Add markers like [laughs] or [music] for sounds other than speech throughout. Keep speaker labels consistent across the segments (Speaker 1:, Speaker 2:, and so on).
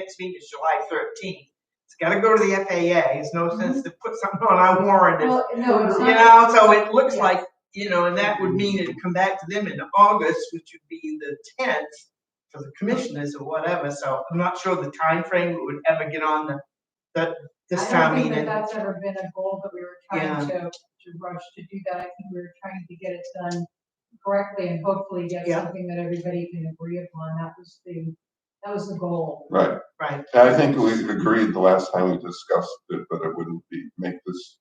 Speaker 1: next meeting is July thirteenth. It's gotta go to the FAA, there's no sense to put something on our warrant, and-
Speaker 2: Well, no, it's
Speaker 1: you
Speaker 2: not.
Speaker 1: know, so it looks
Speaker 2: Yeah.
Speaker 1: like, you know, and that would mean it'd come back to them in August, which would be the tenth for the commissioners or whatever, so I'm not sure the time frame would ever get on the, the, this
Speaker 2: I
Speaker 1: town
Speaker 2: don't think that
Speaker 1: meeting.
Speaker 2: that's ever been a goal that we were trying to, to rush to do that. I think we were trying to get it done correctly and hopefully get
Speaker 1: Yeah.
Speaker 2: something that everybody can agree upon. That was the, that was the goal.
Speaker 3: Right,
Speaker 1: Right,
Speaker 3: and I think we agreed the last time we discussed it, that it wouldn't be, make this,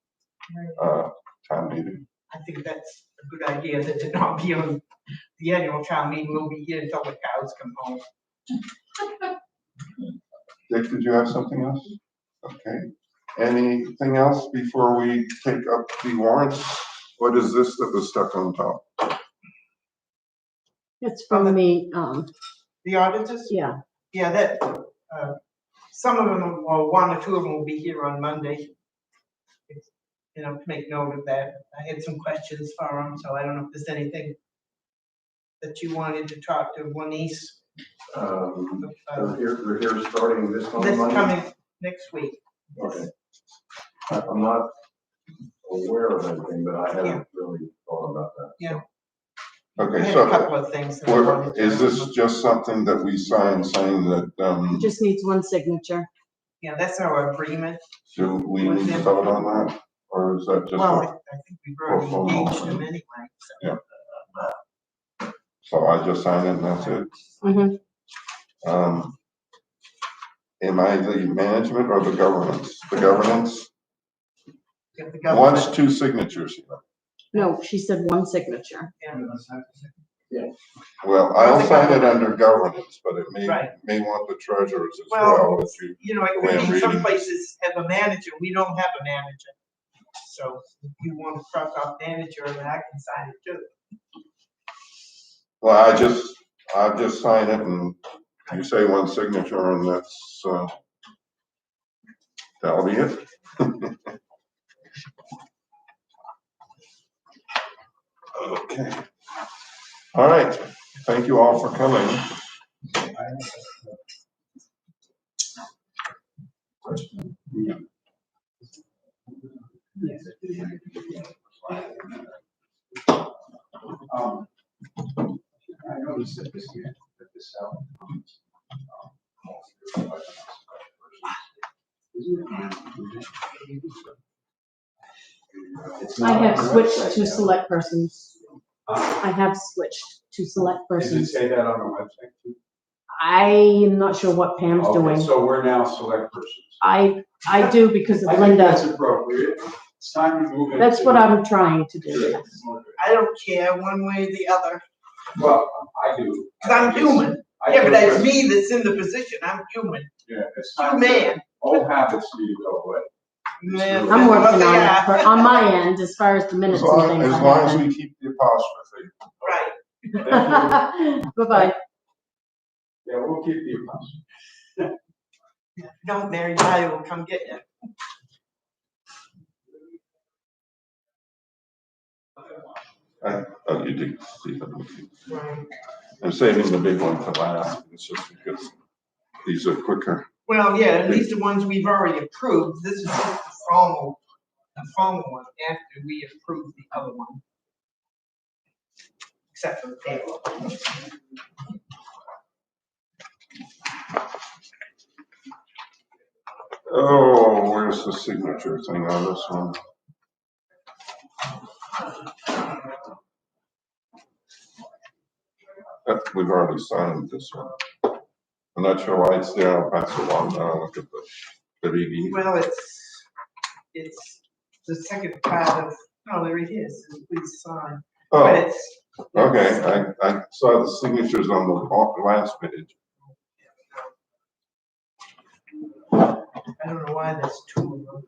Speaker 2: right?
Speaker 3: uh, town meeting.
Speaker 1: I think that's a good idea, that to not be on the annual town meeting, we'll be here until the cows come home.
Speaker 3: Dick, did you have something else? Okay, anything else before we take up the warrants? What is this that was stuck on top?
Speaker 4: It's from the, um,
Speaker 1: The auditors?
Speaker 4: yeah,
Speaker 1: Yeah, that, uh, some of them, well, one or two of them will be here on Monday. It's- You know, make note of that. I had some questions for them, so I don't know if there's anything that you wanted to talk to Juanice.
Speaker 3: Um,
Speaker 1: about.
Speaker 3: here, they're here starting this
Speaker 1: This coming next week.
Speaker 3: Okay. I- I'm not aware of anything, but I
Speaker 1: Yeah.
Speaker 3: haven't really thought about that.
Speaker 1: Yeah. I
Speaker 5: Okay,
Speaker 1: had a
Speaker 5: so
Speaker 1: couple of things. that I
Speaker 5: we're-
Speaker 1: wanted to-
Speaker 5: is this just something that we sign saying that,
Speaker 4: it
Speaker 5: um,
Speaker 4: just needs one signature.
Speaker 1: Yeah, that's our agreement.
Speaker 5: do we need to vote on that? Or is that just,
Speaker 1: Well,
Speaker 5: a-
Speaker 1: I- I think we've already engaged them anyway, so.
Speaker 5: so I just sign it and that's it?
Speaker 4: Mhm.
Speaker 5: Um, am I the management or the governance? The governance
Speaker 1: if the government-
Speaker 5: wants two signatures. you know.
Speaker 4: No, she said one signature.
Speaker 5: Well, I'll sign it under governance, but it may,
Speaker 1: Right.
Speaker 5: may want the treasurer's as
Speaker 1: Well,
Speaker 5: well. if you-
Speaker 1: you know,
Speaker 5: the way
Speaker 1: it
Speaker 5: I'm
Speaker 1: could be some
Speaker 5: reading.
Speaker 1: places have a manager, we don't have a manager. So if you want to cross off manager, then I can sign it too.
Speaker 5: Well, I just, I'll just sign it and you say one signature and that's, uh, that'll be it. [laughs] Okay. All right. Thank you all for coming.
Speaker 6: Um, I noticed that this year, that this out. um, um, It's
Speaker 4: I
Speaker 6: not on
Speaker 4: have
Speaker 6: the
Speaker 4: switched
Speaker 6: website
Speaker 4: to
Speaker 6: now.
Speaker 4: select persons.
Speaker 6: Uh,
Speaker 4: I have switched to select
Speaker 6: Does it
Speaker 4: persons.
Speaker 6: say that on the website? too?
Speaker 4: I am not sure what Pam's
Speaker 6: Okay,
Speaker 4: doing.
Speaker 6: So we're now select persons.
Speaker 4: I, I do because
Speaker 6: I
Speaker 4: of
Speaker 6: think That's
Speaker 4: Linda.
Speaker 6: appropriate. It's time to move it.
Speaker 4: That's what I'm trying to do.
Speaker 6: to-
Speaker 1: I don't care one way or the other,
Speaker 6: Well, I do.
Speaker 1: because I'm human.
Speaker 6: I
Speaker 1: Yeah, but
Speaker 6: do,
Speaker 1: that's me that's in the position, I'm human,
Speaker 6: Yeah, it's
Speaker 1: you
Speaker 6: time. to-
Speaker 1: man.
Speaker 6: All habits need to go away.
Speaker 1: Man,
Speaker 4: I'm
Speaker 1: well,
Speaker 4: working on
Speaker 1: yeah,
Speaker 4: it, for- on my end, as far as the minutes
Speaker 5: As
Speaker 4: and
Speaker 5: long,
Speaker 4: things
Speaker 5: as
Speaker 4: like
Speaker 5: long as
Speaker 4: that.
Speaker 5: we keep the apostrophe.
Speaker 1: Right,
Speaker 6: Yeah,
Speaker 4: [laughs] Bye-bye.
Speaker 6: we'll keep you posted.
Speaker 1: don't marry Ty, will come get you.
Speaker 5: I thought oh, you did, Stephen. I'm saving the big one for last. It's just because these are quicker.
Speaker 1: Well, yeah, at least the ones we've already approved, this is just the formal, the formal one after we approve the other one. Except for the payroll.
Speaker 5: Oh, where's the signature thing on this one? Uh, We've already signed this one. I'm not sure why it's there, I'll pass it on, I'll look at the, the BB.
Speaker 1: Well, it's, it's the second part of, no, there it is, is please sign, but
Speaker 5: Oh,
Speaker 1: it's.
Speaker 5: okay, I, I saw the signatures on the la- last page.
Speaker 1: I don't know why there's two of them.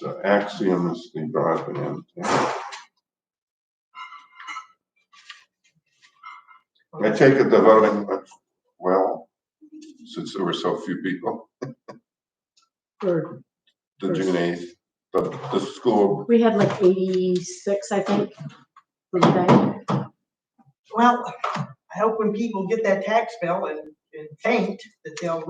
Speaker 5: So uh, Axiom is the driving in. I take it the voting, went well, since there were so few people,
Speaker 4: Or-
Speaker 5: the June eighth, the, the school
Speaker 4: We had like eighty-six, I think, for the day.
Speaker 1: Well, I hope when people get that tax bill and it and faint, that they'll